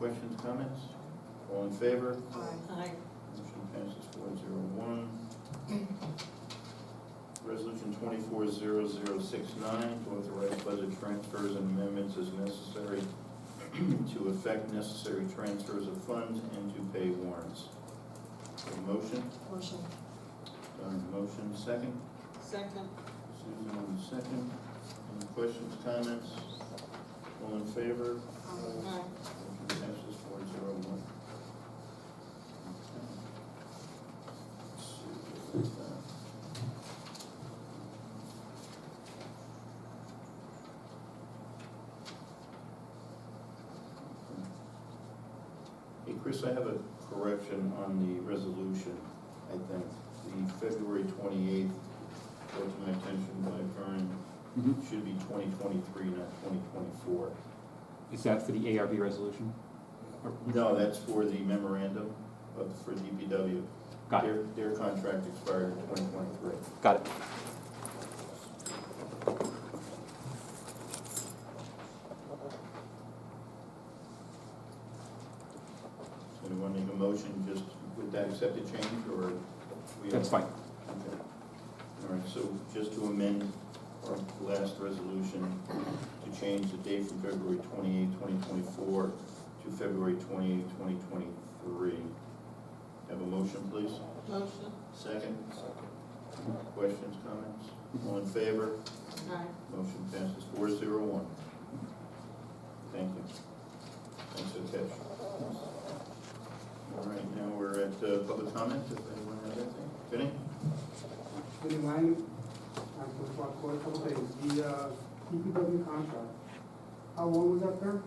Questions, comments? All in favor? Aye. Aye. Motion passes four zero one. Resolution twenty-four zero zero six nine, to authorize budget transfers and amendments as necessary to effect necessary transfers of funds and to pay warrants. A Motion, Motion. Done. motion, second? Second. Susan on the second. Any questions, comments? All in favor? Aye. Aye. Motion passes four zero one. Hey, Chris, I have a correction on the resolution, I think. The February twenty-eighth, brought to my attention by Vern, Mhm. should be twenty twenty-three, not twenty twenty-four. Is that for the ARB resolution? Or- No, that's for the memorandum of, for DPW. Got it, Their, their contract expired in twenty twenty-three. got it. So you want to make a motion just with that accepted change, or? we- That's fine. Okay. All right, so just to amend our last resolution, to change the date from February twenty-eighth, twenty twenty-four to February twenty-eighth, twenty twenty-three. Have a motion, please? Motion. Second? Questions, comments? All in favor? Aye. Motion passes four zero one. Thank you. Thanks for the catch. All right, now we're at uh, public comment, if anyone has anything. Vinnie? Good morning, I'm from Clark Court, couple things, the, uh, DPW contract, how long was that term?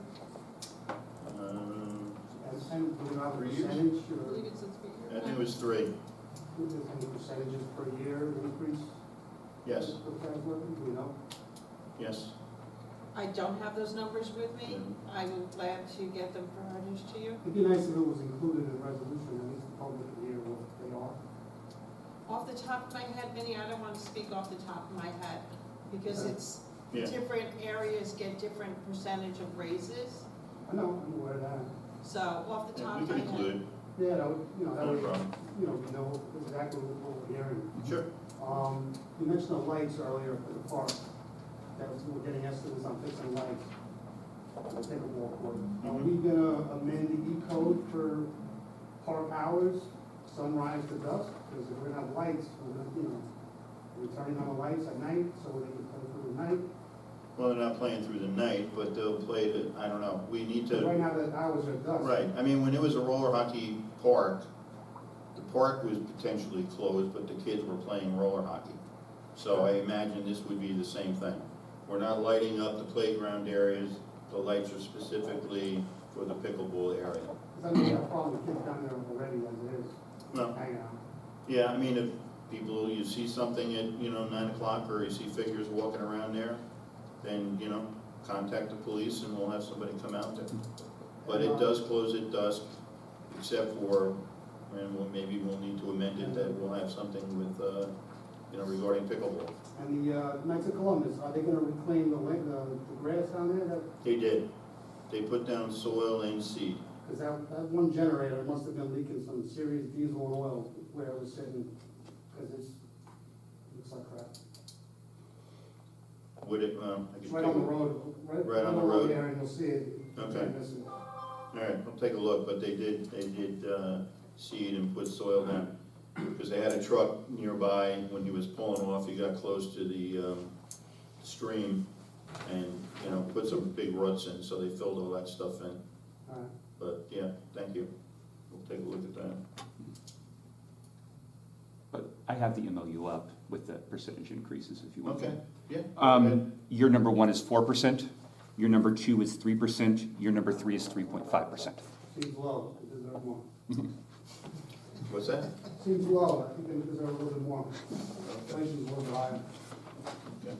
Um, And, and do you have a Three years. percentage, I or, believe it's a three-year. I think it was three. is there any percentages per year increase? Yes, For Frank Worthy, do you know? yes. I don't have those numbers with me. Mhm. I'm glad to get them furnished to you. It'd be nice if it was included in the resolution, at least the public could hear what they are. Off the top of my head, Vinnie, I don't want to speak off the top of my head because Okay. it's, Uh-huh. Yeah. different areas get different percentage of raises. I know, I'm aware of that, So off the Yeah, top We of could my head. include, yeah, that would, you know, that no would, problem. you know, we know exactly what we're hearing. Sure. Um, you mentioned the lights earlier for the park, that was, we're getting estimates on fixing lights. I'll take a walk with it. Are we Mm-hmm. gonna amend the E code for park hours, sunrise to dusk? Because if we're gonna have lights, we're gonna, you know, we're turning on the lights at night, so they can come through the night. Well, they're not playing through the night, but they'll play it, I don't know. We need to. Right now, the hours are dusk. Right, I mean, when it was a roller hockey park, the park was potentially closed, but the kids were playing roller hockey. So I imagine this would be the same thing. We're not lighting up the playground areas, the lights are specifically for the pickleball area. 'Cause I know we have a problem with kids down there already as it is, Well, hanging out. yeah, I mean, if people, you see something at, you know, nine o'clock, or you see figures walking around there, then, you know, contact the police and we'll have somebody come out there. But it does close at dusk, except for, and we'll, maybe we'll need to amend it, that we'll have something with, uh, you know, regarding pickleball. And the, uh, Knights of Columbus, are they gonna reclaim the, la- the the grass down there that They did. They put down soil and seed. Because that, that one generator must have been leaking some serious diesel and oil where it was sitting, because it's, looks like crap. Would it, um, I could. It's right on the road, right? Right on the road. There, and you'll see it. Okay. You miss it. All right, I'll take a look, but they did, they did, uh, seed and put soil down. Because they had a truck nearby, when he was pulling off, he got close to the, um, stream and, you know, put some big roots in, so they filled all that stuff in. All right. But, yeah, thank you. We'll take a look at that. But I have the MOU up with the percentage increases if you want. Okay, yeah. okay. Um, your number one is four percent, your number two is three percent, your number three is three point five percent. Seems low, it deserves more. What's that? Seems low, I think they deserve a little bit more. Inflation's a little bit higher. Okay.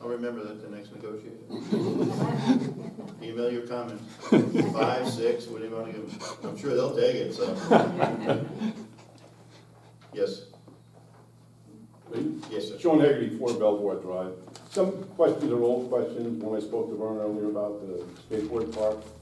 I'll remember that the next negotiation. Email your comments. Five, six, what do you want to give them? I'm sure they'll take it, so. Yes, Me? yes, sir. Sean Hagerty, Four Belvoir Drive. Some questions are old questions, when I spoke to Vern earlier about the skateboard park,